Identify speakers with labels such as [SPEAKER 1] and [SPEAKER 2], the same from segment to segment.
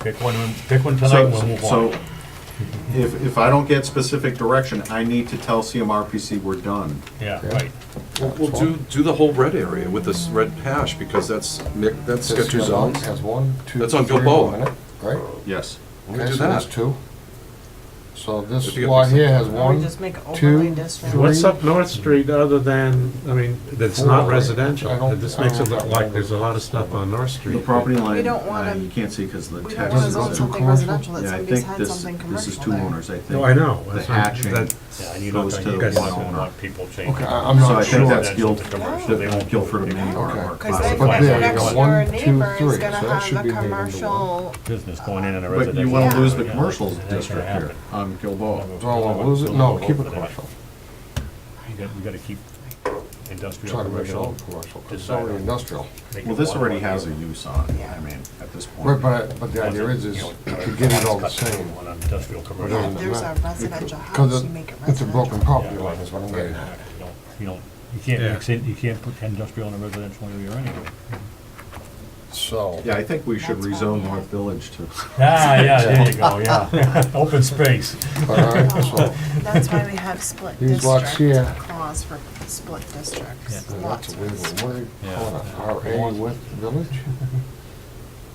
[SPEAKER 1] Pick one, pick one tonight,
[SPEAKER 2] So,
[SPEAKER 1] and we'll move
[SPEAKER 2] so
[SPEAKER 1] on.
[SPEAKER 2] if, if I don't get specific direction, I need to tell CMRPC we're done.
[SPEAKER 1] Yeah, right.
[SPEAKER 3] Well, Well, do, do the whole red area with this red hash, because that's, mi- that's got
[SPEAKER 4] This
[SPEAKER 3] two
[SPEAKER 4] has one-
[SPEAKER 3] zones.
[SPEAKER 4] Has one, two,
[SPEAKER 3] That's on
[SPEAKER 4] three
[SPEAKER 3] Gilboa.
[SPEAKER 4] on it, Right?
[SPEAKER 2] Yes.
[SPEAKER 3] Let me
[SPEAKER 4] Okay,
[SPEAKER 3] do
[SPEAKER 4] so that's
[SPEAKER 3] that.
[SPEAKER 4] two. So this
[SPEAKER 3] If you get
[SPEAKER 4] lot
[SPEAKER 3] this-
[SPEAKER 4] here has
[SPEAKER 5] Or we
[SPEAKER 4] one.
[SPEAKER 5] just make an
[SPEAKER 4] two,
[SPEAKER 5] overlay district.
[SPEAKER 4] three.
[SPEAKER 6] What's up North Street other than, I mean, that's not
[SPEAKER 4] Four.
[SPEAKER 6] residential?
[SPEAKER 4] I don't-
[SPEAKER 6] This
[SPEAKER 4] I
[SPEAKER 6] makes
[SPEAKER 4] don't
[SPEAKER 6] it look
[SPEAKER 4] know.
[SPEAKER 6] like there's a lot of stuff on North Street.
[SPEAKER 2] The property line,
[SPEAKER 5] We don't wanna-
[SPEAKER 2] uh, you can't see because the
[SPEAKER 5] We
[SPEAKER 2] text.
[SPEAKER 5] don't want to
[SPEAKER 2] is-
[SPEAKER 4] Taxes
[SPEAKER 5] zone
[SPEAKER 4] on
[SPEAKER 5] something
[SPEAKER 4] commercial?
[SPEAKER 5] residential, it's
[SPEAKER 2] Yeah, I
[SPEAKER 5] gonna be
[SPEAKER 2] think
[SPEAKER 5] had
[SPEAKER 2] this,
[SPEAKER 5] something
[SPEAKER 2] this is
[SPEAKER 5] commercial
[SPEAKER 2] two
[SPEAKER 5] there.
[SPEAKER 2] owners, I think.
[SPEAKER 6] No, I know.
[SPEAKER 2] The
[SPEAKER 6] that's what I'm-
[SPEAKER 2] hatching.
[SPEAKER 6] that-
[SPEAKER 1] Yeah, and you don't,
[SPEAKER 2] Goes
[SPEAKER 1] think
[SPEAKER 2] to
[SPEAKER 1] you
[SPEAKER 2] the
[SPEAKER 1] guys don't
[SPEAKER 2] landowner.
[SPEAKER 1] want people changing.
[SPEAKER 4] Okay, I- I'm
[SPEAKER 2] So I
[SPEAKER 4] not
[SPEAKER 2] think
[SPEAKER 4] sure.
[SPEAKER 2] that's
[SPEAKER 1] Residential
[SPEAKER 2] Guild,
[SPEAKER 1] to commercial, they won't
[SPEAKER 2] Guilford and Maine
[SPEAKER 1] do
[SPEAKER 2] or- or
[SPEAKER 4] Okay.
[SPEAKER 5] Cause they
[SPEAKER 4] But
[SPEAKER 5] think
[SPEAKER 4] there
[SPEAKER 5] the
[SPEAKER 4] you go.
[SPEAKER 5] next
[SPEAKER 4] One,
[SPEAKER 5] door
[SPEAKER 4] two,
[SPEAKER 5] neighbor
[SPEAKER 4] three,
[SPEAKER 5] is
[SPEAKER 4] so
[SPEAKER 5] gonna
[SPEAKER 4] that should
[SPEAKER 5] have
[SPEAKER 4] be
[SPEAKER 5] a
[SPEAKER 4] made into one.
[SPEAKER 5] commercial,
[SPEAKER 1] Business going in in a
[SPEAKER 2] But
[SPEAKER 1] residential.
[SPEAKER 2] you want to lose the
[SPEAKER 1] area.
[SPEAKER 2] commercial
[SPEAKER 1] That ain't gonna
[SPEAKER 2] district
[SPEAKER 1] happen.
[SPEAKER 2] here on Gilboa.
[SPEAKER 4] So we'll lose it, no, keep it
[SPEAKER 1] We'll
[SPEAKER 4] commercial.
[SPEAKER 1] You got- We gotta keep industrial,
[SPEAKER 4] Try to make it all
[SPEAKER 1] commercial.
[SPEAKER 4] commercial, 'cause it's
[SPEAKER 1] Decide.
[SPEAKER 4] already industrial.
[SPEAKER 1] make
[SPEAKER 2] Well,
[SPEAKER 1] it
[SPEAKER 2] this
[SPEAKER 1] one
[SPEAKER 2] already
[SPEAKER 1] lot.
[SPEAKER 2] has a use on it, I
[SPEAKER 5] Yeah.
[SPEAKER 2] mean, at this point.
[SPEAKER 4] Right, but, but the idea is, is to get it all the
[SPEAKER 1] Cut down
[SPEAKER 4] same.
[SPEAKER 1] On industrial, commercial.
[SPEAKER 5] Yeah, if there's a
[SPEAKER 4] Because
[SPEAKER 5] residential
[SPEAKER 4] it-
[SPEAKER 5] house, you make it
[SPEAKER 4] It's a broken
[SPEAKER 5] residential.
[SPEAKER 4] property line is what I'm getting at.
[SPEAKER 1] You don't- You don't, you can't
[SPEAKER 6] Yeah.
[SPEAKER 1] mix it, you can't put industrial in a residential area anyway.
[SPEAKER 4] So,
[SPEAKER 2] Yeah, I think we should
[SPEAKER 5] That's fine.
[SPEAKER 2] rezone North Village to,
[SPEAKER 1] Ah, yeah, there you go, yeah. Open space.
[SPEAKER 4] all right, so,
[SPEAKER 5] Oh, That's why we have split
[SPEAKER 4] These lots
[SPEAKER 5] district
[SPEAKER 4] here.
[SPEAKER 5] clause for split districts.
[SPEAKER 1] Yeah.
[SPEAKER 4] and
[SPEAKER 5] Lots
[SPEAKER 4] that's a win-win.
[SPEAKER 5] for split.
[SPEAKER 4] What do you
[SPEAKER 1] Yeah.
[SPEAKER 4] call it, RA with village?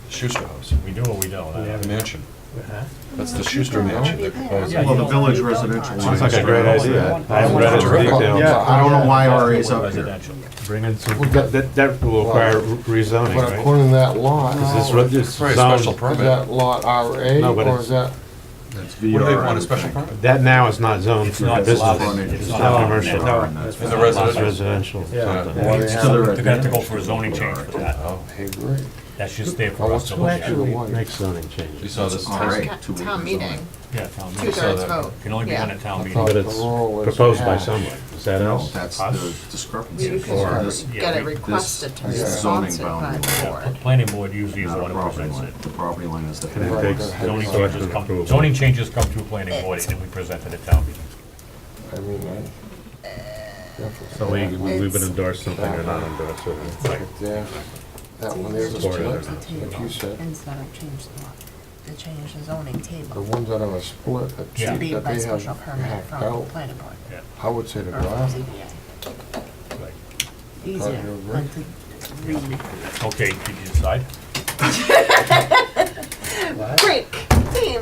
[SPEAKER 3] Schuster House,
[SPEAKER 1] We do or we don't. I haven't-
[SPEAKER 3] mansion.
[SPEAKER 6] Uh-huh.
[SPEAKER 3] That's the Schuster
[SPEAKER 5] Well,
[SPEAKER 3] mansion they're
[SPEAKER 5] yeah.
[SPEAKER 3] proposing.
[SPEAKER 1] Yeah.
[SPEAKER 2] well, the village
[SPEAKER 5] Yeah.
[SPEAKER 2] residential.
[SPEAKER 1] Sounds
[SPEAKER 2] line
[SPEAKER 1] like
[SPEAKER 2] is
[SPEAKER 1] a great
[SPEAKER 2] right
[SPEAKER 1] idea.
[SPEAKER 2] over
[SPEAKER 1] I haven't
[SPEAKER 3] read it in
[SPEAKER 4] Terrific.
[SPEAKER 6] detail.
[SPEAKER 2] there. Yeah, I don't know why RA is
[SPEAKER 1] Industrial
[SPEAKER 2] up here.
[SPEAKER 1] residential.
[SPEAKER 6] Bring in some,
[SPEAKER 4] Well, that-
[SPEAKER 6] that, that will require re- rezoning,
[SPEAKER 4] But
[SPEAKER 6] right?
[SPEAKER 4] according to that lot,
[SPEAKER 6] Is this,
[SPEAKER 4] is
[SPEAKER 6] re- this
[SPEAKER 3] Right, special
[SPEAKER 6] zone,
[SPEAKER 3] permit.
[SPEAKER 4] that lot RA
[SPEAKER 6] No, but
[SPEAKER 4] or
[SPEAKER 6] it's-
[SPEAKER 4] is that?
[SPEAKER 2] That's
[SPEAKER 3] What do they
[SPEAKER 2] VR, I
[SPEAKER 3] want, a
[SPEAKER 2] would
[SPEAKER 3] special
[SPEAKER 2] think.
[SPEAKER 3] permit?
[SPEAKER 6] that now is not zoned
[SPEAKER 1] It's
[SPEAKER 6] for
[SPEAKER 1] not
[SPEAKER 6] business.
[SPEAKER 1] allowed.
[SPEAKER 2] It's
[SPEAKER 6] It's
[SPEAKER 2] not
[SPEAKER 6] not
[SPEAKER 2] allowed.
[SPEAKER 6] commercial,
[SPEAKER 2] No.
[SPEAKER 6] it's
[SPEAKER 3] In the residential.
[SPEAKER 6] residential. or
[SPEAKER 7] Yeah.
[SPEAKER 6] something.
[SPEAKER 4] Well,
[SPEAKER 2] It's to the
[SPEAKER 1] They're gonna have to
[SPEAKER 2] residential.
[SPEAKER 1] go for a zoning change for that.
[SPEAKER 3] Oh,
[SPEAKER 4] Hey, great.
[SPEAKER 1] That's just there
[SPEAKER 4] Oh,
[SPEAKER 1] for us
[SPEAKER 4] what's
[SPEAKER 1] to
[SPEAKER 4] the
[SPEAKER 1] look
[SPEAKER 4] actual-
[SPEAKER 1] at.
[SPEAKER 6] Actually, make zoning changes.
[SPEAKER 3] you saw this,
[SPEAKER 2] All right.
[SPEAKER 5] Ca-
[SPEAKER 2] two
[SPEAKER 5] Town
[SPEAKER 2] acres on
[SPEAKER 5] meeting,
[SPEAKER 1] Yeah, town meeting.
[SPEAKER 5] two-thirds
[SPEAKER 3] that.
[SPEAKER 5] vote.
[SPEAKER 1] Can only be
[SPEAKER 5] Yeah.
[SPEAKER 1] done at town
[SPEAKER 4] I
[SPEAKER 1] meeting.
[SPEAKER 4] thought
[SPEAKER 6] But
[SPEAKER 4] the
[SPEAKER 6] it's
[SPEAKER 4] rule is
[SPEAKER 6] proposed by
[SPEAKER 4] half.
[SPEAKER 6] someone, is that
[SPEAKER 2] No,
[SPEAKER 6] else?
[SPEAKER 2] that's
[SPEAKER 1] Us?
[SPEAKER 2] the
[SPEAKER 5] You
[SPEAKER 2] discrepancy
[SPEAKER 5] could
[SPEAKER 2] for
[SPEAKER 4] Or-
[SPEAKER 2] this.
[SPEAKER 5] just get
[SPEAKER 1] Yeah,
[SPEAKER 5] it
[SPEAKER 1] we- this
[SPEAKER 5] requested to be
[SPEAKER 4] is
[SPEAKER 2] zoning
[SPEAKER 5] sponsored by
[SPEAKER 2] boundary.
[SPEAKER 5] the
[SPEAKER 1] Yeah,
[SPEAKER 5] board.
[SPEAKER 1] pl- Planning board usually is
[SPEAKER 2] Not
[SPEAKER 1] the
[SPEAKER 2] a
[SPEAKER 1] one who
[SPEAKER 2] property
[SPEAKER 1] presents
[SPEAKER 2] line.
[SPEAKER 1] it.
[SPEAKER 2] The property line is the.
[SPEAKER 6] And it
[SPEAKER 4] Right.
[SPEAKER 6] takes
[SPEAKER 1] Zoning
[SPEAKER 4] Select
[SPEAKER 1] changes come,
[SPEAKER 6] approval.
[SPEAKER 1] zoning changes come through planning board and then we present it at town meeting.
[SPEAKER 4] I mean, I. definitely-
[SPEAKER 6] So we, we would
[SPEAKER 5] It's-
[SPEAKER 6] endorse something or not endorse it.
[SPEAKER 1] Right.
[SPEAKER 4] Yeah, that one is a
[SPEAKER 6] Or
[SPEAKER 4] split,
[SPEAKER 6] another.
[SPEAKER 4] like you said.
[SPEAKER 5] Instead of change the lot, to change the zoning
[SPEAKER 4] The
[SPEAKER 5] table.
[SPEAKER 4] ones that are a split, that
[SPEAKER 1] Yeah.
[SPEAKER 4] two
[SPEAKER 5] To be
[SPEAKER 4] that
[SPEAKER 5] by
[SPEAKER 4] they have
[SPEAKER 5] special permit
[SPEAKER 4] half
[SPEAKER 5] from the
[SPEAKER 4] out,
[SPEAKER 5] planning board.
[SPEAKER 1] Yeah,
[SPEAKER 4] I would say the
[SPEAKER 5] or from
[SPEAKER 4] drive.
[SPEAKER 5] ZBA.
[SPEAKER 1] right.
[SPEAKER 5] Easier than to read.
[SPEAKER 1] Okay, did you decide?
[SPEAKER 5] Break, theme.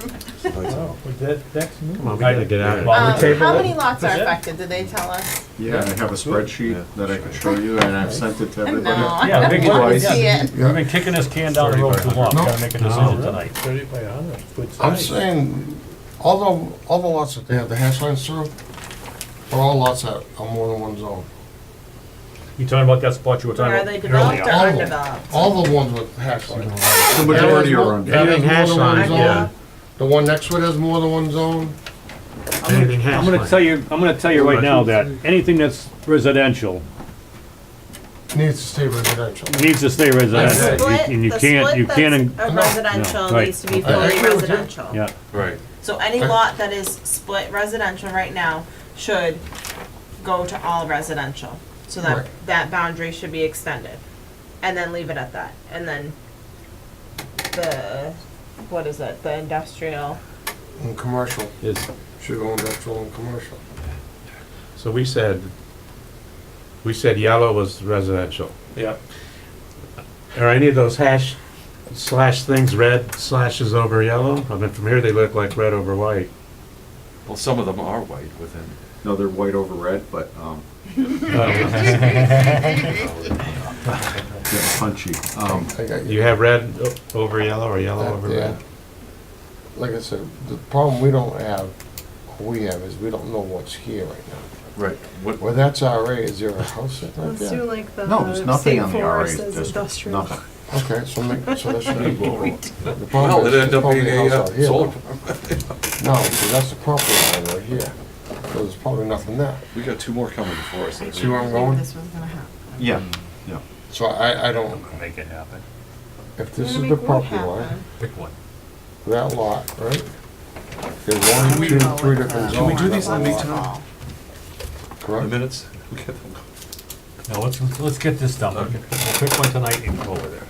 [SPEAKER 6] Come on, we gotta get out of here.
[SPEAKER 1] Well, we
[SPEAKER 5] Um,
[SPEAKER 1] table
[SPEAKER 5] How
[SPEAKER 1] it. Oh,
[SPEAKER 5] many lots are affected, did they tell us?
[SPEAKER 2] Yeah, I have a spreadsheet that I could show you and I've sent it to
[SPEAKER 5] No,
[SPEAKER 2] everybody.
[SPEAKER 5] I
[SPEAKER 1] Yeah, big
[SPEAKER 5] don't want to
[SPEAKER 1] ones.
[SPEAKER 5] see it.
[SPEAKER 1] We've been kicking this can down the road too long, we gotta make a decision tonight.
[SPEAKER 7] Thirty by a hundred, good
[SPEAKER 4] I'm
[SPEAKER 7] size.
[SPEAKER 4] saying, all the, all the lots that they have the hash lines through, are all lots that are more than one zone.
[SPEAKER 1] You talking about that spot you were
[SPEAKER 5] Are
[SPEAKER 1] talking
[SPEAKER 5] they
[SPEAKER 1] about earlier?
[SPEAKER 5] developed
[SPEAKER 4] All
[SPEAKER 5] or
[SPEAKER 4] of them.
[SPEAKER 5] undeveloped?
[SPEAKER 4] All the ones with hash lines.
[SPEAKER 2] The majority are on.
[SPEAKER 4] That has
[SPEAKER 6] Anything hash
[SPEAKER 4] more than one
[SPEAKER 6] line,
[SPEAKER 4] zone.
[SPEAKER 6] yeah.
[SPEAKER 4] The one next to it has more than one zone.
[SPEAKER 6] Anything hash
[SPEAKER 7] I'm gonna
[SPEAKER 6] line.
[SPEAKER 7] tell you, I'm gonna tell you right now that anything that's residential
[SPEAKER 4] Needs to stay residential.
[SPEAKER 7] needs to stay
[SPEAKER 5] The
[SPEAKER 7] residential. You-
[SPEAKER 5] split,
[SPEAKER 7] And you
[SPEAKER 5] the
[SPEAKER 7] can't, you
[SPEAKER 5] split
[SPEAKER 7] can't,
[SPEAKER 5] that's a residential
[SPEAKER 7] No, right.
[SPEAKER 5] needs to be
[SPEAKER 4] I
[SPEAKER 5] fully
[SPEAKER 4] agree with you.
[SPEAKER 5] residential.
[SPEAKER 7] yeah,
[SPEAKER 3] right.
[SPEAKER 5] So any lot that is split residential right now should go to all residential. So that,
[SPEAKER 4] Right.
[SPEAKER 5] that boundary should be extended. And then leave it at that. And then the, what is it, the industrial?
[SPEAKER 4] And commercial,
[SPEAKER 6] Is-
[SPEAKER 4] should go industrial and commercial.
[SPEAKER 6] So we said, we said yellow was residential.
[SPEAKER 7] yeah.
[SPEAKER 6] Are any of those hash slash things red slashes over yellow? I mean, from here, they look like red over white.
[SPEAKER 3] Well, some of them are white within.
[SPEAKER 2] No, they're white over red, but, um, yeah, punchy. Um,
[SPEAKER 4] I got you.
[SPEAKER 6] You have red o- over yellow or yellow over
[SPEAKER 4] That, Uh, yeah.
[SPEAKER 6] red?
[SPEAKER 4] Like I said, the problem we don't have, we have, is we don't know what's here right now.
[SPEAKER 3] Right. What,
[SPEAKER 4] Well, that's RA, is there a house sitting right there?
[SPEAKER 5] like the.
[SPEAKER 2] No, there's nothing on the RA district, nothing.
[SPEAKER 4] Okay, so make, so that should be. The
[SPEAKER 3] well,
[SPEAKER 4] problem is,
[SPEAKER 3] it ended
[SPEAKER 4] there's
[SPEAKER 3] up
[SPEAKER 4] probably
[SPEAKER 3] being a
[SPEAKER 4] a house out
[SPEAKER 3] uh,
[SPEAKER 4] here.
[SPEAKER 3] solar,
[SPEAKER 4] though. No, so that's the property line right here. So there's probably nothing there.
[SPEAKER 3] we got two more coming before us.
[SPEAKER 4] See where I'm going?
[SPEAKER 5] This was gonna happen.
[SPEAKER 2] Yeah, yeah.
[SPEAKER 4] So I, I don't,
[SPEAKER 1] Make it happen.
[SPEAKER 4] if this
[SPEAKER 5] We're
[SPEAKER 4] is
[SPEAKER 5] gonna
[SPEAKER 4] the
[SPEAKER 5] make
[SPEAKER 4] property
[SPEAKER 5] wood
[SPEAKER 4] line,
[SPEAKER 5] happen.
[SPEAKER 1] Pick one.
[SPEAKER 4] that lot, right? There's one, two, three different zones.
[SPEAKER 3] Can we do these in
[SPEAKER 4] that
[SPEAKER 3] the
[SPEAKER 4] lot,
[SPEAKER 3] meantime? The
[SPEAKER 4] Correct?
[SPEAKER 3] minutes? We'll get them.
[SPEAKER 1] Now, let's, let's get this done. We'll pick one tonight and go over there.